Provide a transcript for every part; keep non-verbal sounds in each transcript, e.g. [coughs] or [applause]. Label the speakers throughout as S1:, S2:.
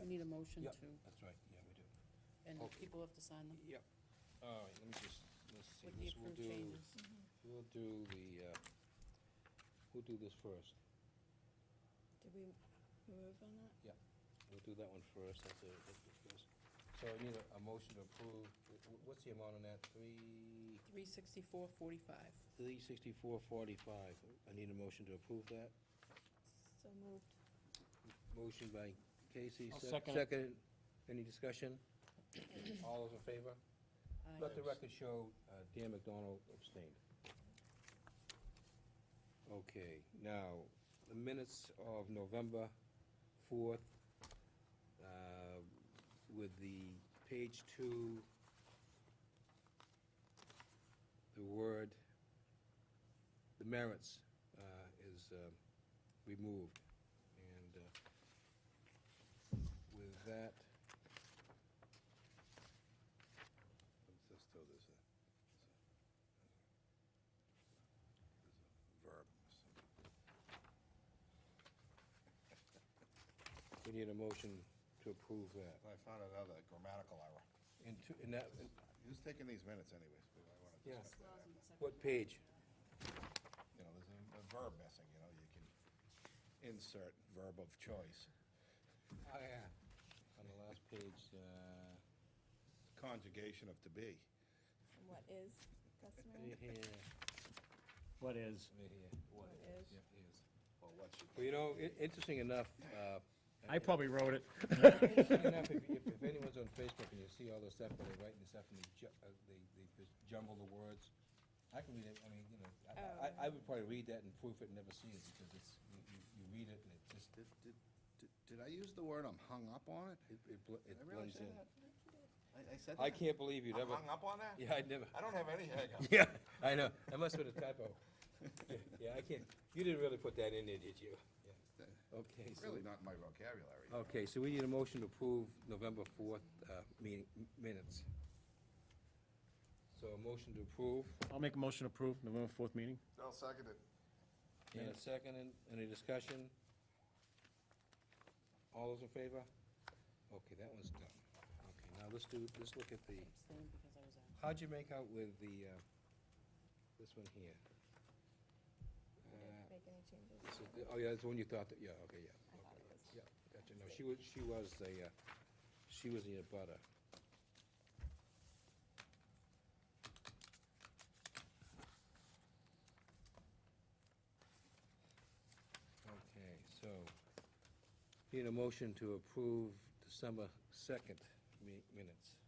S1: We need a motion
S2: Yep,
S1: to,
S2: that's right, yeah, we do.
S1: and
S2: Okay.
S1: people have to sign them
S2: Yep. All right, let me just, let's see,
S1: with the
S2: this we'll
S1: approved
S2: do,
S1: changes.
S2: we'll do the, uh, we'll do this first.
S3: Did we move on that?
S2: We'll do that one first, that's it, that's the first. So I need a, a motion to approve, Wh- wh- what's the amount on that, three,
S1: Three sixty-four forty-five.
S2: three sixty-four forty-five? I need a motion to approve that.
S3: So moved.
S2: Motion by Casey,
S4: I'll
S2: se-
S4: second it.
S2: second, any
S4: [coughs]
S2: discussion? All those in favor? Let the record show, uh, Dan McDonald abstained. Okay, now, the minutes of November 4th uh, with the page two, the word, the merits uh, is uh, removed. And uh, with that, Let's just throw this in. Verb. We need a motion to approve that.
S5: I found another grammatical error.
S2: And two, and that, and
S5: Who's taking these minutes anyways? We might wanna
S2: Yeah.
S5: discuss that after.
S2: what page?
S5: You know, there's a a verb missing, you know, you can insert verb of choice.
S2: Oh, yeah. On the last page, uh,
S5: Conjugation of to be.
S3: And what is
S2: right
S3: customary?
S2: here,
S4: What is?
S2: right here. What
S3: is.
S2: Yeah, is.
S5: Well, what should
S2: Well, you know, i- interesting enough, uh.
S4: I probably wrote it.
S2: Interesting enough, if, if, if anyone's on Facebook and you see all this stuff, where they're writing this stuff and they ju- uh, they, they just jumble the words, I can read it, I mean, you know, I- I,
S5: Oh.
S2: I, I would probably read that and proof it and never see it, because it's, you, you, you read it and it just,
S5: Did, did, did- did I use the word I'm hung up on it?
S2: it, it bl- it
S5: Did I really
S2: blends
S5: say
S2: in.
S5: that? I, I said that?
S2: I can't believe you'd
S5: I'm
S2: ever,
S5: hung up on
S2: [laughs]
S5: that?
S2: yeah, I never,
S5: I don't have any hangup.
S2: yeah, I know, that must have been a typo. Yeah, Yeah, I can't, you didn't really put that in there, did you? Yeah. Okay, so.
S5: Really not in my vocabulary.
S2: Okay, so we need a motion to approve November 4th uh, meeting m- minutes. So a motion to approve,
S4: I'll make a motion to approve November fourth meeting.
S5: I'll second it.
S2: and a second, and any discussion? All those in favor? Okay, that one's done. Okay, now let's do, let's look at the,
S1: Abstain because I was out.
S2: how'd you make out with the, uh, this one here?
S3: We didn't make any changes.
S2: This is the- Oh, yeah, that's the one you thought, that- yeah, okay, yeah.
S3: I thought it was.
S2: Yeah, gotcha, no, she was, she was a, uh, she was the abutter. Okay, so, need a motion to approve December second mi- minutes.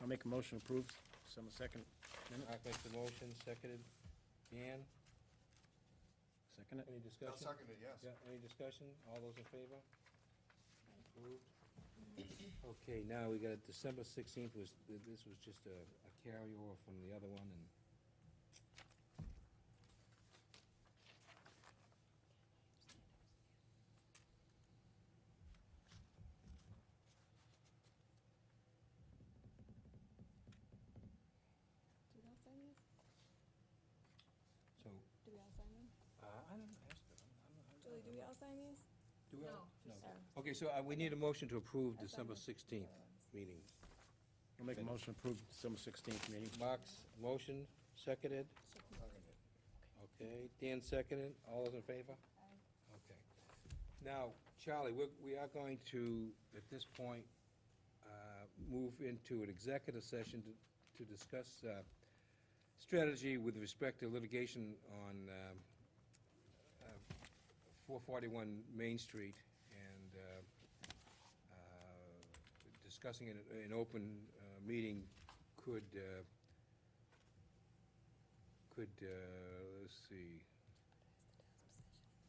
S4: I'll make a motion to approve December second.
S2: I make the motion, seconded, Dan,
S4: Second it.
S2: any
S5: I'll
S2: discussion?
S5: second it, yes.
S2: Yeah, any discussion? All those in favor? Approved. Okay, now we got December sixteenth was, th- this was just a a carryover from the other one and.
S3: Do we all sign these?
S2: So,
S3: Do we all sign them?
S2: uh, I don't know, ask them. I'm- I'm- I'm-
S3: Julie, do we all sign these?
S2: Do we all-
S3: No.
S2: Okay, so uh, we need a motion to approve December
S3: Assignment.
S2: sixteenth meeting.
S4: I'll make a motion to approve December sixteenth meeting.
S2: Mark's motion, seconded. Okay, Dan seconded, all those in favor? Okay. Now, Charlie, we're, we are going to, at this point, uh, move into an executive session to, to discuss, uh, strategy with respect to litigation on, um, uh, four forty-one Main Street and, uh, uh, discussing in, an open, uh, meeting could, uh, could, uh, let's see,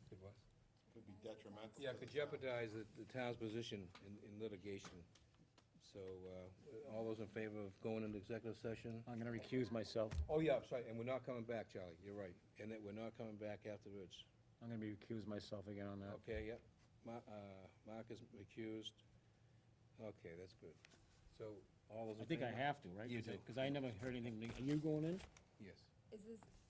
S2: could what?
S5: Could be detrimental
S2: Yeah,
S5: to
S2: could
S5: the town.
S2: jeopardize the, the town's position in, in litigation. So, uh, all those in favor of going into executive session?
S4: I'm gonna recuse myself.
S2: Oh, yeah, I'm sorry, and we're not coming back, Charlie, you're right, and that we're not coming back afterwards.
S4: I'm gonna be recuse myself again on that.
S2: Okay, yep, Ma, uh, Mark is recused. Okay, that's good. So, all those
S4: I
S2: in
S4: think
S2: favor?
S4: I have to, right?
S2: You
S4: Because I-
S2: do.
S4: Because I never heard anything. Are you going in?
S2: Yes.
S3: Is this